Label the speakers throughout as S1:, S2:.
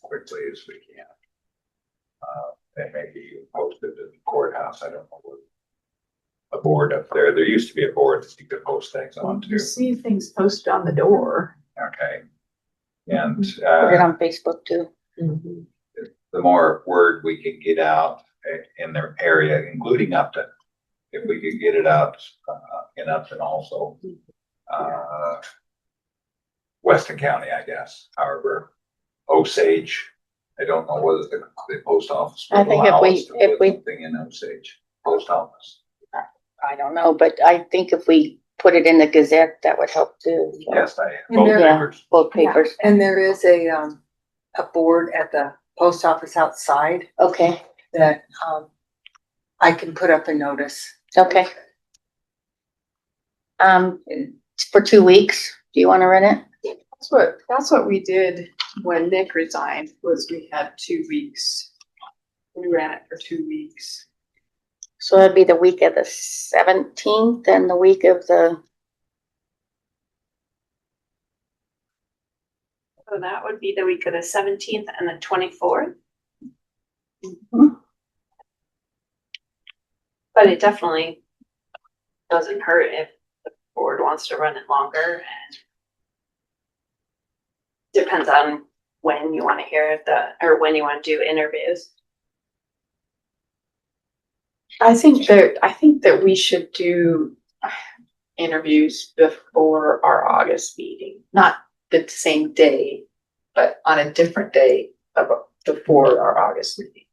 S1: quickly as we can. Uh, and maybe posted in the courthouse, I don't know. what- A board up there, there used to be a board that you could post things on too,
S2: You see things posted on the door.
S1: okay? And,
S3: Put it
S1: uh,
S3: on Facebook too.
S1: the more word we can get out eh, in their area, including Upton. If we could get it out, uh, in Upton also, uh. Weston County, I guess, however, Osage, I don't know whether the, the post office.
S3: I
S1: would
S3: think if
S1: allow
S3: we-
S1: us to
S3: if
S1: put
S3: we-
S1: Something in Osage, post office,
S3: I don't know, but I think if we put it in the Gazette, that would help too.
S1: yes, I,
S4: And
S1: both
S4: there-
S1: papers,
S3: Both papers,
S4: And there is a, um, a board at the post office outside
S3: okay,
S4: that, um, I can put up a notice.
S3: okay. Um, for two weeks, do you wanna run it?
S2: That's what, that's what we did when Nick resigned, was we had two weeks. We ran it for two weeks.
S3: So it'd be the week of the seventeenth and the week of the,
S5: So that would be the week of the seventeenth and the twenty-fourth. But it definitely doesn't hurt if the board wants to run it longer and depends on when you want to hear the, or when you want to do interviews.
S2: I think that, I think that we should do interviews before our August meeting, not the same day, but on a different day of, before our August meeting.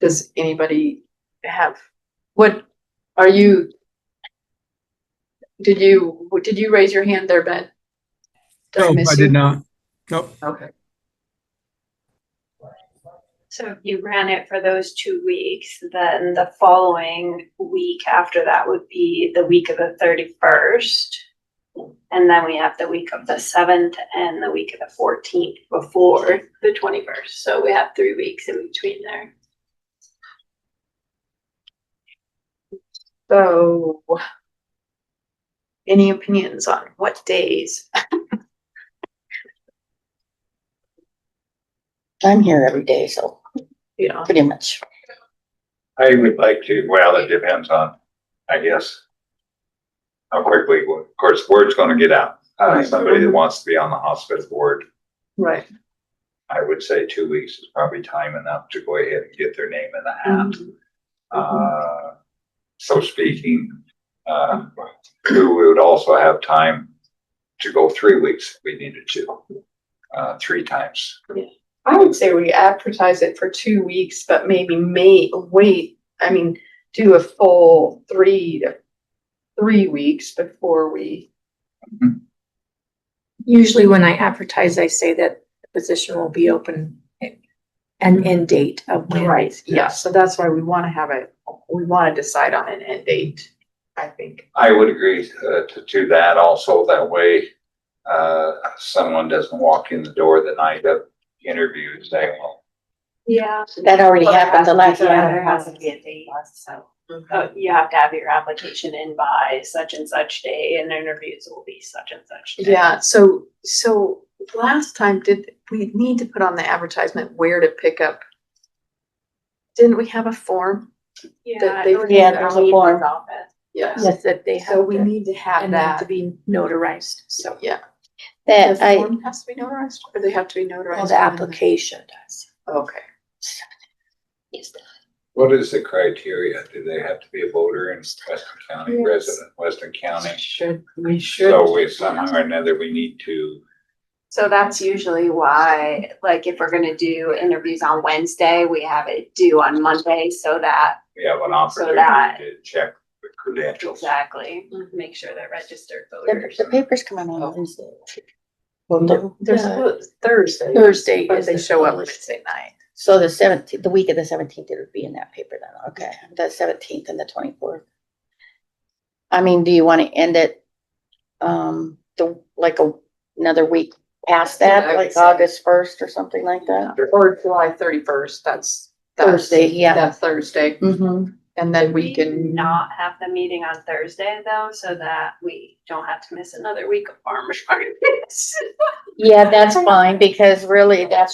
S2: Does anybody have, what, are you? Did you, did you raise your hand there, Ben? Did
S6: No,
S2: miss
S6: I
S2: you?
S6: did not. Nope.
S2: Okay,
S5: So if you ran it for those two weeks, then the following week after that would be the week of the thirty-first. And then we have the week of the seventh and the week of the fourteenth before the twenty-first, so we have three weeks in between there.
S2: so. Any opinions on what days?
S3: I'm here every day, so
S2: You know,
S3: pretty much.
S1: I would like to, well, it depends on, I guess. How quickly, of course, word's gonna get out, uh, somebody that wants to be on the hospital board.
S2: right.
S1: I would say two weeks is probably time enough to go ahead and get their name in the hat. Uh, so speaking, uh, we would also have time to go three weeks if we needed to, uh, three times.
S2: I would say we advertise it for two weeks, but maybe may, wait, I mean, do a full three to three weeks before we.
S7: Usually when I advertise, I say that the position will be open and end date of when.
S2: Yeah, so that's why we wanna have a, we wanna decide on an end date, I think.
S1: I would agree uh, to, to that also. That way, uh, someone doesn't walk in the door the night of interview and say, well,
S5: Yeah.
S3: That already happened the last
S5: Yeah, there
S3: time.
S5: has to be a date, so, uh, you have to have your application in by such and such day and interviews will be such and such. day.
S2: Yeah, so, so last time did, we need to put on the advertisement where to pick up. Didn't we have a form?
S5: Yeah.
S2: that they-
S5: it would be
S3: Yeah, there's a
S5: the
S3: form.
S5: office.
S2: Yes.
S7: Yes, that they
S2: So
S7: have
S2: we
S7: to,
S2: need to have
S7: and they have to
S2: that,
S7: be notarized, so.
S2: yeah.
S3: That
S2: The
S3: I,
S2: form has to be notarized, or they have to be notarized?
S7: Well, the application does.
S2: Okay.
S1: what is the criteria? Do they have to be a voter in Western County,
S2: Yes.
S1: resident, Western County?
S2: Should, we should.
S1: So we somehow or another, we need to
S5: So that's usually why, like, if we're gonna do interviews on Wednesday, we have it due on Monday so that,
S1: We have an
S5: So
S1: opportunity
S5: that-
S1: to check the credentials.
S5: exactly, make sure they're registered
S3: the
S5: voters.
S3: the papers come out
S2: Oh.
S3: on Wednesday.
S2: There's Thursday.
S3: Thursday
S2: But
S3: is
S2: they
S3: the
S2: show up
S3: published.
S2: Wednesday night.
S3: So the seventeenth, the week of the seventeenth, it would be in that paper then, okay, the seventeenth and the twenty-fourth. I mean, do you wanna end it, um, the, like a, another week past
S2: Yeah, I
S3: that,
S2: would
S3: like
S2: say.
S3: August first or something like that?
S2: Or July thirty-first, that's. that's-
S3: Thursday, yeah.
S2: That's Thursday,
S3: Mm-hmm,
S2: and then we can.
S5: Not have the meeting on Thursday though, so that we don't have to miss another week of farmer's markets.
S3: yeah, that's fine, because really, that's